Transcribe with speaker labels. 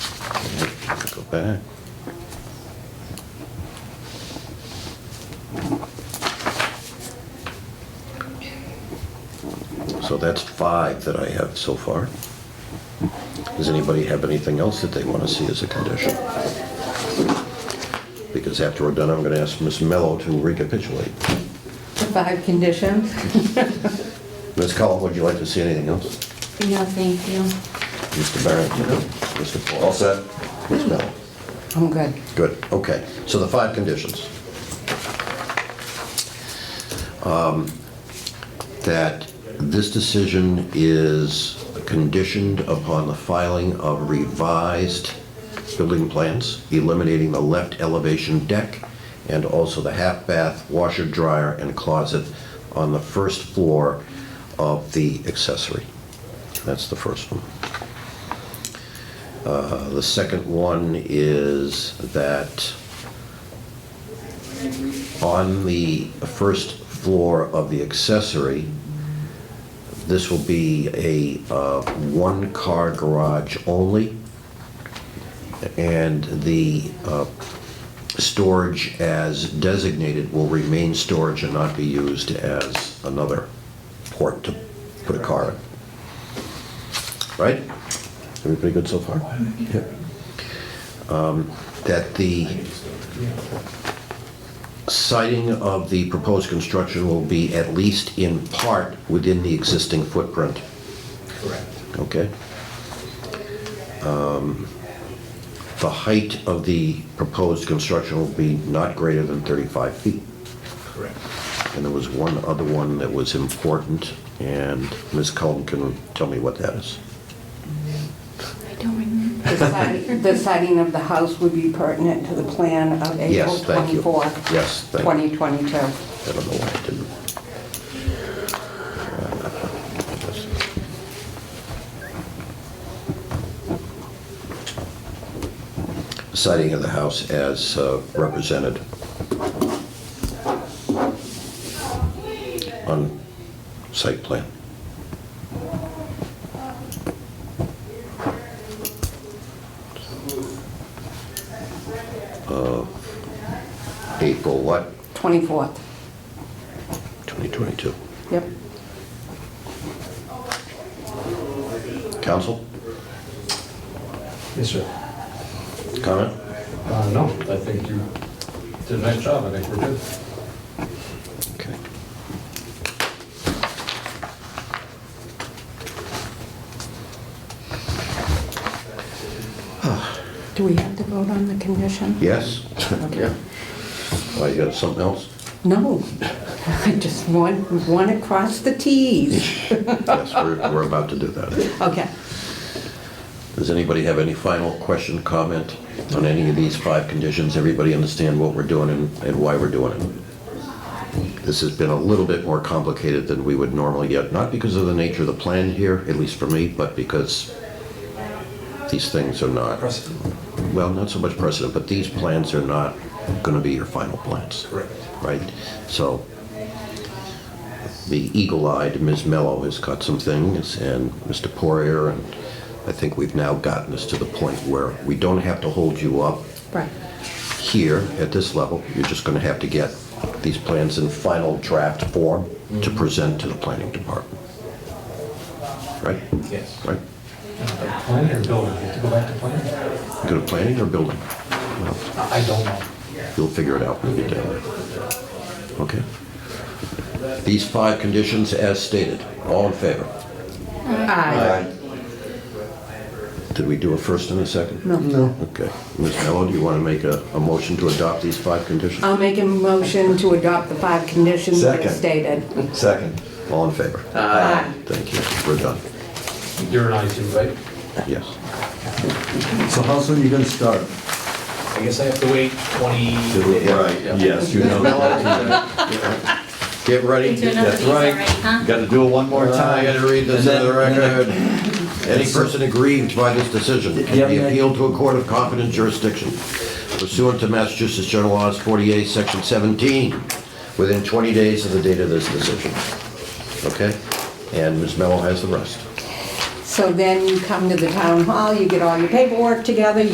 Speaker 1: Go back. So that's five that I have so far. Does anybody have anything else that they want to see as a condition? Because after we're done, I'm going to ask Ms. Mello to recapitulate.
Speaker 2: The five conditions?
Speaker 1: Ms. Cullen, would you like to see anything else?
Speaker 2: No, thank you.
Speaker 1: Mr. Barrett? Mr. Paul? All set. Ms. Mello?
Speaker 2: I'm good.
Speaker 1: Good, okay. So the five conditions. Um, That this decision is conditioned upon the filing of revised building plans, eliminating the left elevation deck and also the half bath, washer, dryer, and closet on the first floor of the accessory. That's the first one. Uh, The second one is that on the first floor of the accessory, this will be a uh, one-car garage only, and the uh, storage as designated will remain storage and not be used as another port to put a car in. Right? Everybody good so far? Yeah. Um, That the siding of the proposed construction will be at least in part within the existing footprint,
Speaker 3: Correct.
Speaker 1: okay? Um, The height of the proposed construction will be not greater than 35 feet.
Speaker 3: Correct.
Speaker 1: And there was one other one that was important, and Ms. Cullen can tell me what that is.
Speaker 4: I don't remember.
Speaker 2: The side- the siding of the house would be pertinent to the plan of April
Speaker 1: Yes, thank you.
Speaker 2: 24th,
Speaker 1: Yes, thank you.
Speaker 2: 2022.
Speaker 1: I don't know why I didn't. Siding of the house as uh, represented on site plan. Uh, April what?
Speaker 2: 24th.
Speaker 1: 2022.
Speaker 2: Yep.
Speaker 1: Council,
Speaker 3: Yes, sir.
Speaker 1: comment?
Speaker 3: Uh, no, I think you did a nice job, I think we're good.
Speaker 1: Okay.
Speaker 4: Do we have to vote on the condition?
Speaker 1: Yes? Yeah. Why, you got something else?
Speaker 2: No, I just want, want to cross the Ts.
Speaker 1: Yes, we're, we're about to do that.
Speaker 2: Okay.
Speaker 1: Does anybody have any final question, comment on any of these five conditions? Everybody understand what we're doing and, and why we're doing it? This has been a little bit more complicated than we would normally get, not because of the nature of the plan here, at least for me, but because these things are not. well, not so much precedent, but these plans are not going to be your final plans.
Speaker 3: Correct.
Speaker 1: Right? So the eagle-eyed Ms. Mello has got some things, and Mr. Poirier, and I think we've now gotten us to the point where we don't have to hold you up
Speaker 2: Right.
Speaker 1: here at this level. You're just going to have to get these plans in final draft form to present to the planning department. Right?
Speaker 3: Yes.
Speaker 1: Right?
Speaker 3: Planning or building, you have to go back to planning?
Speaker 1: Go to planning or building? Well,
Speaker 3: I I don't know.
Speaker 1: You'll figure it out when you get down there. Okay. These five conditions as stated, all in favor?
Speaker 2: Aye.
Speaker 1: Did we do a first and a second?
Speaker 2: No. No.
Speaker 1: Okay. Ms. Mello, do you want to make a, a motion to adopt these five conditions?
Speaker 2: I'll make a motion to adopt the five conditions as
Speaker 5: Second.
Speaker 2: stated.
Speaker 5: Second.
Speaker 1: All in favor?
Speaker 2: Aye.
Speaker 1: Thank you. We're done.
Speaker 3: You're an I too, right?
Speaker 1: Yes.
Speaker 5: So how soon you gonna start?
Speaker 3: I guess I have to wait 20
Speaker 5: Right, yes, you know.
Speaker 1: Get ready.
Speaker 4: Do another
Speaker 5: That's
Speaker 4: piece already,
Speaker 5: right.
Speaker 4: huh?
Speaker 5: Gotta do it one more
Speaker 1: I
Speaker 5: time.
Speaker 1: gotta read this into the
Speaker 5: And then-
Speaker 1: record. Any person aggrieved by this decision can be
Speaker 5: Yeah.
Speaker 1: appealed to a court of competent jurisdiction pursuant to Massachusetts General Laws 48, Section 17, within 20 days of the date of this decision. Okay? And Ms. Mello has the rest.
Speaker 2: So then you come to the town hall, you get all your paperwork together,